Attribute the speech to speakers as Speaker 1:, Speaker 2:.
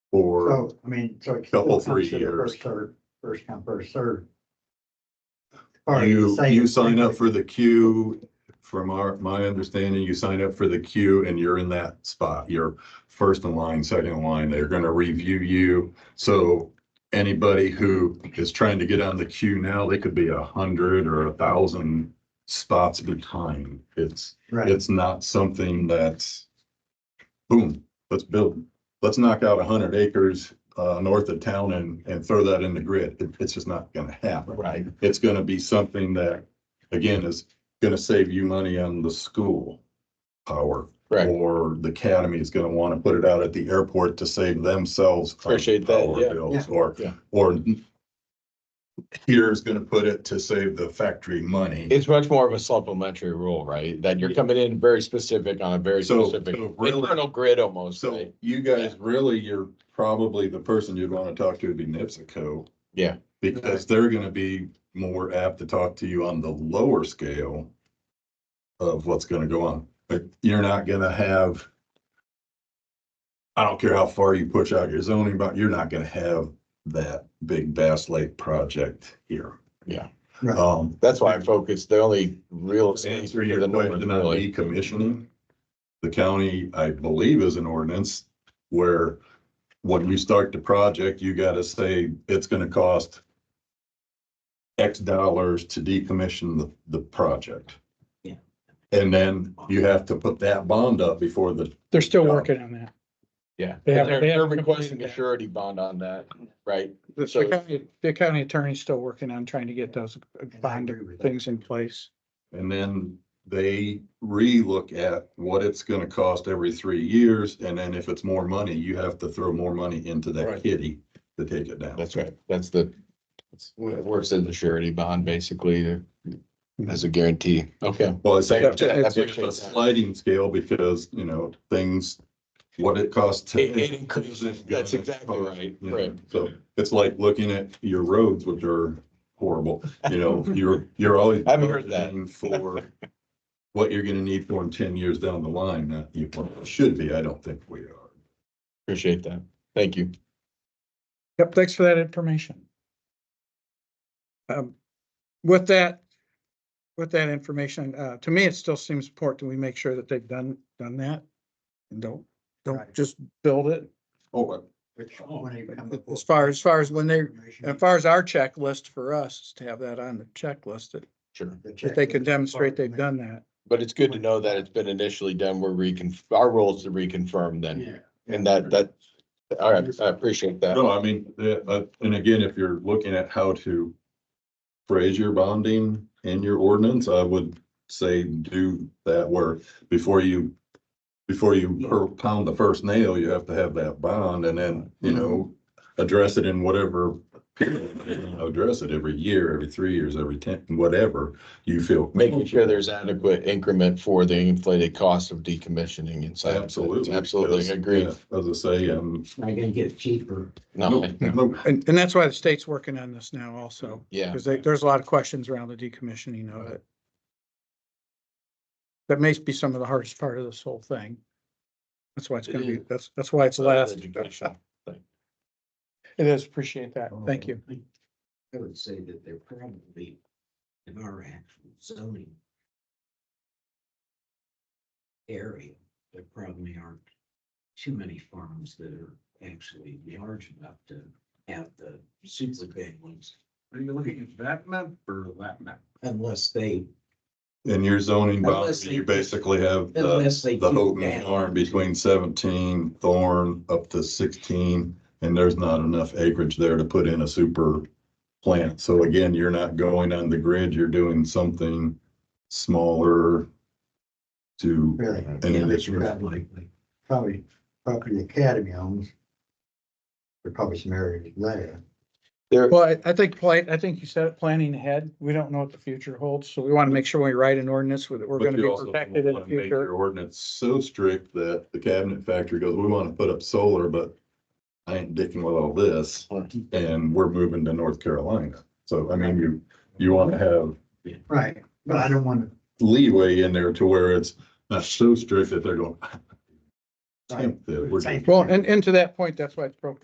Speaker 1: for,
Speaker 2: So, I mean, so. it's
Speaker 1: Couple,
Speaker 2: still
Speaker 1: three
Speaker 2: considered
Speaker 1: years.
Speaker 2: First, served, first come, first served. Or
Speaker 1: you,
Speaker 2: say
Speaker 1: you
Speaker 2: it's
Speaker 1: sign up
Speaker 2: like-
Speaker 1: for the queue. From our, my understanding, you sign up for the queue and you're in that spot. You're first in line, second in line. They're going to review you. So anybody who is trying to get on the queue now, they could be a hundred or a thousand spots behind. It's,
Speaker 2: Right,
Speaker 1: it's not something that's boom, let's build, let's knock out a hundred acres uh, north of town and, and throw that in the grid. It- It's just not gonna happen.
Speaker 2: Right.
Speaker 1: It's gonna be something that, again, is gonna save you money on the school power.
Speaker 3: Correct.
Speaker 1: Or the academy is gonna wanna put it out at the airport to save themselves. from
Speaker 3: Appreciate that,
Speaker 1: power
Speaker 3: yeah.
Speaker 1: bills, Or,
Speaker 3: Yeah.
Speaker 1: or here's gonna put it to save the factory money.
Speaker 3: It's much more of a supplementary rule, right? That you're coming in very specific on a very
Speaker 1: So-
Speaker 3: specific
Speaker 1: so really-
Speaker 3: internal grid almost,
Speaker 1: So
Speaker 3: right?
Speaker 1: you
Speaker 3: Yeah.
Speaker 1: guys really, you're probably the person you'd want to talk to would be NipsiCo.
Speaker 3: Yeah.
Speaker 1: Because they're going to be more apt to talk to you on the lower scale of what's going to go on. But you're not going to have, I don't care how far you push out your zoning, but you're not going to have that big Bass Lake project here.
Speaker 3: Yeah.
Speaker 2: Right.
Speaker 1: Um,
Speaker 3: That's why I focused, the only real. estate
Speaker 1: answer
Speaker 3: for
Speaker 1: your
Speaker 3: the numbers,
Speaker 1: question on
Speaker 3: really.
Speaker 1: decommissioning. The county, I believe, is an ordinance where when you start the project, you gotta say it's gonna cost X dollars to decommission the, the project.
Speaker 2: Yeah.
Speaker 1: And then you have to put that bond up before the,
Speaker 4: They're still
Speaker 1: Yeah.
Speaker 4: working on that.
Speaker 3: Yeah.
Speaker 4: They have-
Speaker 3: They're,
Speaker 4: they
Speaker 3: they're
Speaker 4: haven't
Speaker 3: requesting
Speaker 4: completed
Speaker 3: a
Speaker 4: that.
Speaker 3: surety bond on that, right?
Speaker 4: The
Speaker 3: So-
Speaker 4: county, the county attorney's still working on trying to get those bond
Speaker 2: agree with that.
Speaker 4: things in place.
Speaker 1: and then they relook at what it's gonna cost every three years. And then if it's more money, you have to throw more money into that
Speaker 3: Right.
Speaker 1: kitty to take it down.
Speaker 3: That's right. That's the, it's- it works as a surety bond, basically, uh, as a guarantee. Okay.
Speaker 1: Well, it's
Speaker 3: Yeah,
Speaker 1: actually
Speaker 3: I
Speaker 1: it's
Speaker 3: appreciate
Speaker 1: a
Speaker 3: that.
Speaker 1: sliding scale because, you know, things, what it costs. to-
Speaker 3: It- it increases. That's exactly right.
Speaker 1: You know,
Speaker 3: Right.
Speaker 1: So it's like looking at your roads, which are horrible, you know, you're, you're always.
Speaker 3: I haven't heard that.
Speaker 1: budgeting For what you're gonna need for in ten years down the line, not you should be, I don't think we are.
Speaker 3: Appreciate that. Thank you.
Speaker 4: Yep, thanks for that information. Um, with that, with that information, uh, to me, it still seems important we make sure that they've done, done that. And don't, don't
Speaker 2: Right.
Speaker 4: just build it.
Speaker 1: Oh,
Speaker 2: Which one they come up
Speaker 4: As
Speaker 2: with
Speaker 4: far, as far as when they,
Speaker 2: information,
Speaker 4: as far as our checklist for us, is to have that on the checklist, that
Speaker 3: Sure.
Speaker 2: the
Speaker 4: if they can
Speaker 2: checklist,
Speaker 4: demonstrate they've
Speaker 2: department.
Speaker 4: done that.
Speaker 3: But it's good to know that it's been initially done. We're recon, our role is to reconfirm then.
Speaker 2: Yeah.
Speaker 3: And that, that, all right, I appreciate that.
Speaker 1: No, I mean, uh, uh, and again, if you're looking at how to phrase your bonding in your ordinance, I would say do that where before you, before you per- pound the first nail, you have to have that bond and then, you know, address it in whatever period, you know, address it every year, every three years, every ten, whatever you feel.
Speaker 3: Making sure there's adequate increment for the inflated cost of decommissioning inside. of it.
Speaker 1: Absolutely.
Speaker 3: Absolutely
Speaker 1: because,
Speaker 3: agree.
Speaker 1: yeah, As I say, um,
Speaker 2: It's not gonna get cheaper.
Speaker 3: No, I-
Speaker 1: no,
Speaker 4: And, and that's why the state's working on this now also,
Speaker 3: yeah.
Speaker 4: because there's a lot of questions around the decommissioning of it. That may be some of the hardest part of this whole thing. That's why it's gonna be, that's, that's why it's last.
Speaker 3: Education.
Speaker 4: It is, appreciate that. Thank you.
Speaker 2: I would say that they're probably in our actual zoning area, there probably aren't too many farms that are actually large enough to have the super big ones,
Speaker 5: Are you looking at that map or that map?
Speaker 2: unless they,
Speaker 1: in your zoning
Speaker 2: Unless
Speaker 1: bond,
Speaker 2: they-
Speaker 1: you basically have. the-
Speaker 2: unless they.
Speaker 1: the
Speaker 2: do
Speaker 1: Houghton
Speaker 2: that.
Speaker 1: Farm between seventeen, Thorn up to sixteen, and there's not enough acreage there to put in a super plant. So again, you're not going on the grid, you're doing something smaller to,
Speaker 2: Really,
Speaker 1: And
Speaker 2: yeah,
Speaker 1: it's-
Speaker 2: you've got like, like, probably, probably the academy owns. There probably some areas there.
Speaker 3: There,
Speaker 4: Well, I- I think, pla- I think you said it, planning ahead. We don't know what the future holds, so we want to make sure we write an ordinance with, we're
Speaker 1: But
Speaker 4: gonna
Speaker 1: you
Speaker 4: be
Speaker 1: also don't
Speaker 4: protected in the
Speaker 1: wanna make Your
Speaker 4: future.
Speaker 1: ordinance so strict that the cabinet factory goes, we want to put up solar, but I ain't dicking with all this.
Speaker 3: Right.
Speaker 1: And we're moving to North Carolina. So I mean, you, you want to have
Speaker 2: Right, but I don't want
Speaker 1: leeway in there to where it's not so strict that they're going.
Speaker 2: Right.
Speaker 1: "Temp that we're
Speaker 2: Same.
Speaker 1: doing."
Speaker 4: Well, and, and to that point, that's why it's broken